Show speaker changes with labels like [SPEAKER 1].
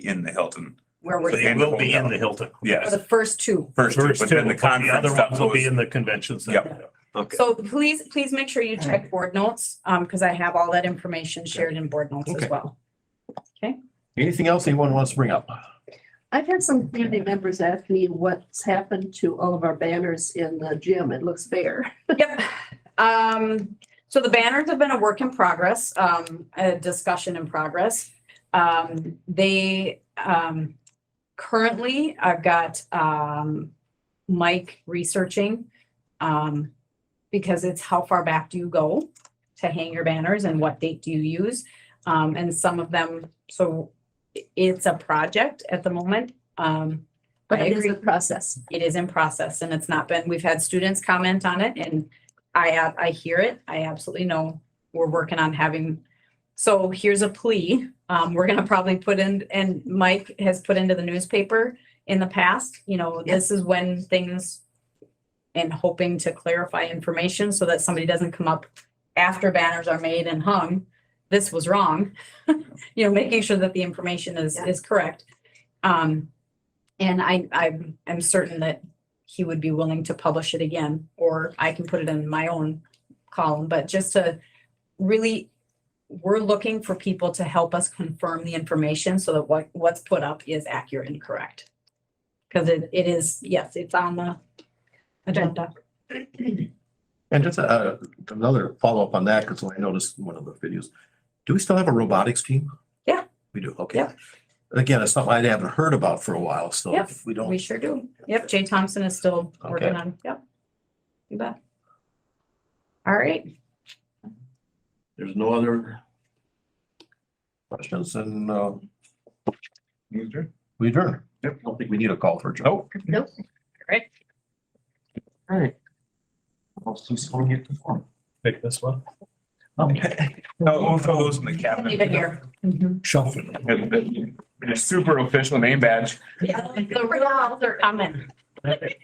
[SPEAKER 1] in the Hilton.
[SPEAKER 2] where
[SPEAKER 1] So
[SPEAKER 2] we're,
[SPEAKER 1] you-
[SPEAKER 3] They will be in the Hilton.
[SPEAKER 2] for
[SPEAKER 1] Yes,
[SPEAKER 2] the first two.
[SPEAKER 1] first two,
[SPEAKER 3] First
[SPEAKER 1] but
[SPEAKER 3] two,
[SPEAKER 1] then the
[SPEAKER 3] the
[SPEAKER 1] conference
[SPEAKER 3] other ones
[SPEAKER 1] stuff
[SPEAKER 3] will be
[SPEAKER 1] was,
[SPEAKER 3] in the convention center.
[SPEAKER 4] Okay.
[SPEAKER 2] So please, please make sure you check board notes, um, because I have all that information shared in board notes
[SPEAKER 4] Okay.
[SPEAKER 2] as well.
[SPEAKER 4] Anything else anyone wants to bring up?
[SPEAKER 5] I've had some community members ask me what's happened to all of our banners in the gym. It looks bare.
[SPEAKER 2] Yep. Um, so the banners have been a work in progress, um, a discussion in progress. Um, they, um, currently, I've got, um, Mike researching, um, because it's how far back do you go to hang your banners and what date do you use? Um, and some of them, so i- it's a project at the moment. Um,
[SPEAKER 5] But
[SPEAKER 2] I
[SPEAKER 5] it is
[SPEAKER 2] agree
[SPEAKER 5] a process.
[SPEAKER 2] it is in process and it's not been, we've had students comment on it and I, ab- I hear it. I absolutely know we're working on having, so here's a plea. Um, we're gonna probably put in, and Mike has put into the newspaper in the past, you know, this is when things and hoping to clarify information so that somebody doesn't come up after banners are made and hung, this was wrong. You know, making sure that the information is,
[SPEAKER 5] Yeah.
[SPEAKER 2] is correct. Um, and I, I'm, I'm certain that he would be willing to publish it again, or I can put it in my own column, but just to really, we're looking for people to help us confirm the information so that what, what's put up is accurate and correct. Cause it, it is, yes, it's on the agenda.
[SPEAKER 4] And just uh, another follow-up on that, because I noticed in one of the videos. Do we still have a robotics team?
[SPEAKER 2] Yeah.
[SPEAKER 4] We do, okay.
[SPEAKER 2] Yeah.
[SPEAKER 4] Again, it's something I haven't heard about for a while, so
[SPEAKER 2] Yep,
[SPEAKER 4] if we don't.
[SPEAKER 2] We sure do. Yep, Jay Thompson is still working
[SPEAKER 4] Okay.
[SPEAKER 2] on, yep. You bet. All right,
[SPEAKER 4] There's no other questions and uh, we adjourn. Yep. I don't think we need a call for adjourn. Nope.
[SPEAKER 5] Nope.
[SPEAKER 2] Right.
[SPEAKER 4] All right. I'll see someone Um, get the form.
[SPEAKER 3] Pick this one.
[SPEAKER 4] Okay.
[SPEAKER 1] no, we'll throw those in the cabinet.
[SPEAKER 2] leave it here. Mhm.
[SPEAKER 3] Shelf.
[SPEAKER 1] And the- the Super official name badge.
[SPEAKER 2] Yeah, The real author comment.